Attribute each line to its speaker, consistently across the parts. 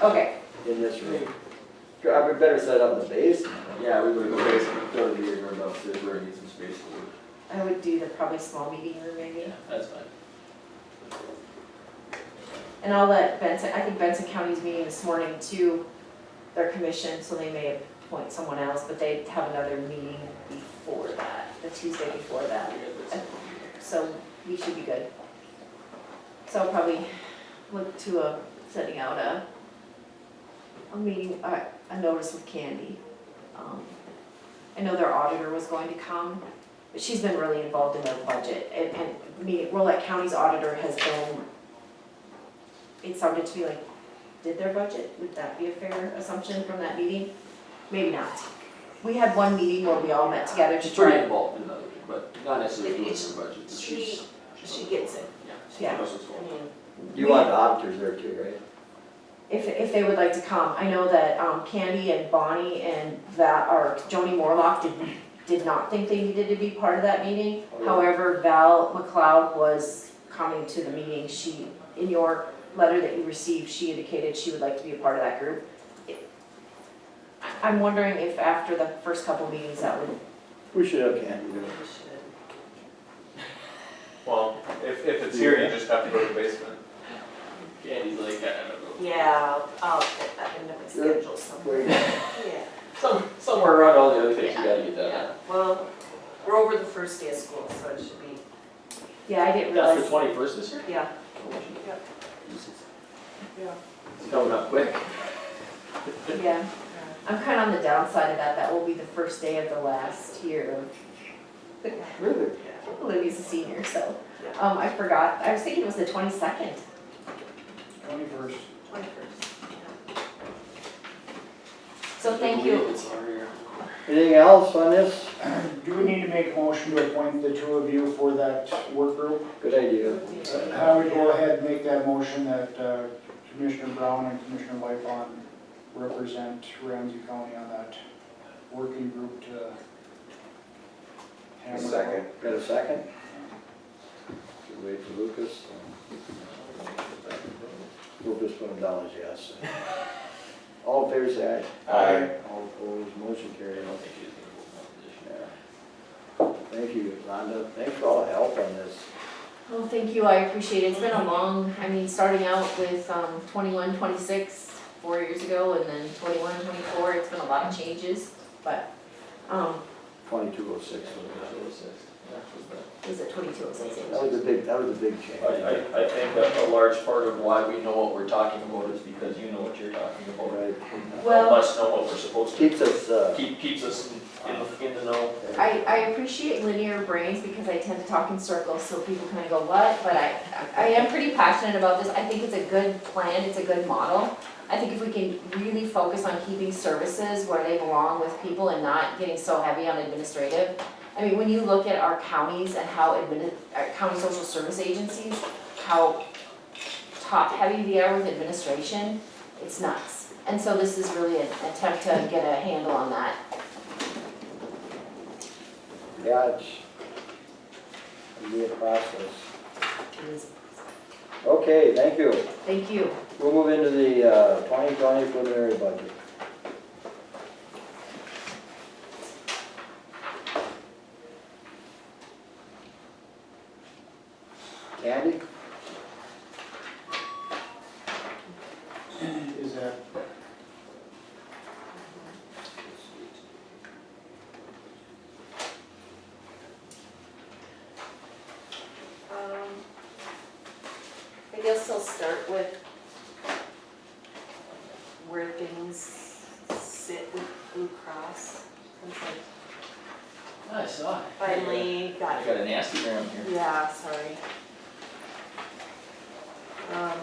Speaker 1: Okay,
Speaker 2: in this room. God, we better set up the basement.
Speaker 3: Yeah, we would go basement, throw the meeting room upstairs, we're gonna need some space for
Speaker 1: I would do the probably small meeting room maybe,
Speaker 3: That's fine.
Speaker 1: and I'll let Benson, I think Benson County's meeting this morning too, their commission, so they may appoint someone else, but they have another meeting before that, the Tuesday before that, so we should be good. So I'll probably look to a, setting out a, a meeting, a, a notice with Candy. Um, I know their auditor was going to come, but she's been really involved in their budget, and, and me, Rolette County's auditor has been, it sounded to me like, did their budget, would that be a fair assumption from that meeting? Maybe not. We had one meeting where we all met together to
Speaker 3: She's
Speaker 1: try
Speaker 3: pretty
Speaker 1: and
Speaker 3: involved in the, but not necessarily doing
Speaker 4: It's-
Speaker 3: her budget, but
Speaker 4: she-
Speaker 3: she's.
Speaker 4: she gets it.
Speaker 3: Yeah. she
Speaker 1: Yeah.
Speaker 3: knows what's
Speaker 4: I
Speaker 3: going on.
Speaker 4: mean,
Speaker 2: You want the auditors there too, right?
Speaker 1: if, if they would like to come. I know that um, Candy and Bonnie and that, or Joni Morlock did, did not think they needed to be part of that meeting.
Speaker 3: Oh,
Speaker 1: However, Val McLeod was coming to the meeting. She, in your letter that you received, she indicated she would like to be a part of that group. I- I'm wondering if after the first couple meetings that would,
Speaker 2: We should have Candy do
Speaker 4: we
Speaker 2: it.
Speaker 4: should.
Speaker 5: Well, if, if it's here, you just have to go to the basement.
Speaker 3: Candy's like, I don't know.
Speaker 4: Yeah, I'll fit that into my schedule somewhere.
Speaker 2: Wait,
Speaker 4: Yeah,
Speaker 3: Some, somewhere around all the other things you
Speaker 4: Yeah,
Speaker 3: gotta get
Speaker 4: yeah.
Speaker 3: done.
Speaker 4: Well, we're over the first day of school, so it should be,
Speaker 1: yeah, I didn't
Speaker 3: That's the
Speaker 1: realize.
Speaker 3: twenty-first this year? Oh,
Speaker 4: yeah. Yeah.
Speaker 3: It's coming up quick.
Speaker 1: Yeah, I'm kind of on the downside of that. That will be the first day of the last year of
Speaker 2: Really?
Speaker 1: Olivia's a senior, so, um, I forgot, I was thinking it was the twenty-second.
Speaker 2: Twenty-first.
Speaker 4: Twenty-first.
Speaker 1: So thank
Speaker 3: I believe
Speaker 1: you.
Speaker 3: it's already around.
Speaker 2: Anything else on this?
Speaker 6: Do we need to make a motion to appoint the two of you for that work group?
Speaker 2: Good idea.
Speaker 6: I would go ahead and make that motion that uh, Commissioner Brown and Commissioner Lightfon represent Ramsey County on that working group to hammer. out.
Speaker 2: Got a second? Should Wait for Lucas. um, We'll just put him down as yes. All in favor, say aye.
Speaker 5: Aye.
Speaker 2: All opposed, motion
Speaker 3: I
Speaker 2: carried.
Speaker 3: don't think she's gonna hold that position.
Speaker 2: Yeah. Thank you, Rhonda. Thanks for all the help on this.
Speaker 1: Well, Oh, thank you, I appreciate it. It's been a long, I mean, starting out with, um, twenty-one, twenty-six, four years ago, and then twenty-one, twenty-four, it's been a lot of changes, but, um,
Speaker 2: Twenty-two oh six.
Speaker 1: is it twenty-two, it says?
Speaker 2: That was a big, that was a big change.
Speaker 3: I, I, I think that a large part of why we know what we're talking about is because you know what you're talking about.
Speaker 2: Right.
Speaker 1: Well-
Speaker 3: Help us know what we're supposed to,
Speaker 2: Keeps us, uh,
Speaker 3: keep, keeps us in, in- in the know.
Speaker 1: I, I appreciate linear brains because I tend to talk in circles, so people kind of go, what? But I, I am pretty passionate about this, I think it's a good plan, it's a good model. I think if we can really focus on keeping services where they belong with people and not getting so heavy on administrative. I mean, when you look at our counties and how admini, uh, county social service agencies, how top-heavy they are with administration, it's nuts. And so this is really an attempt to get a handle on that.
Speaker 2: yeah, it's, it'll be a process. Okay, thank you.
Speaker 1: Thank you.
Speaker 2: We'll move into the, uh, twenty twenty preliminary budget. Candy?
Speaker 6: Is that,
Speaker 4: Um, I guess I'll start with where things sit with Blue Cross. since I
Speaker 3: I saw it.
Speaker 4: Finally got
Speaker 3: I got a nasty gram here.
Speaker 4: Yeah, sorry. Um.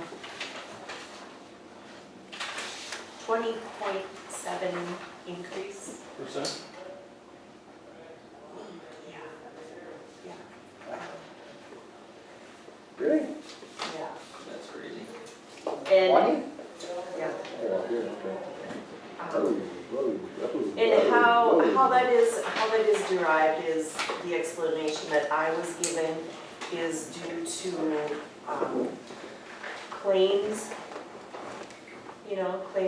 Speaker 4: Twenty point seven increase.
Speaker 3: Percent?
Speaker 4: Yeah.
Speaker 2: Really?
Speaker 4: Yeah.
Speaker 3: That's crazy.
Speaker 4: And,
Speaker 2: Twenty?
Speaker 4: yeah.
Speaker 2: Oh, here, okay.
Speaker 4: Um,
Speaker 2: Oh, whoa, whoa, whoa,
Speaker 4: And how,
Speaker 2: whoa.
Speaker 4: how that is, how that is derived is, the explanation that I was given is due to, um, claims. You you know, claim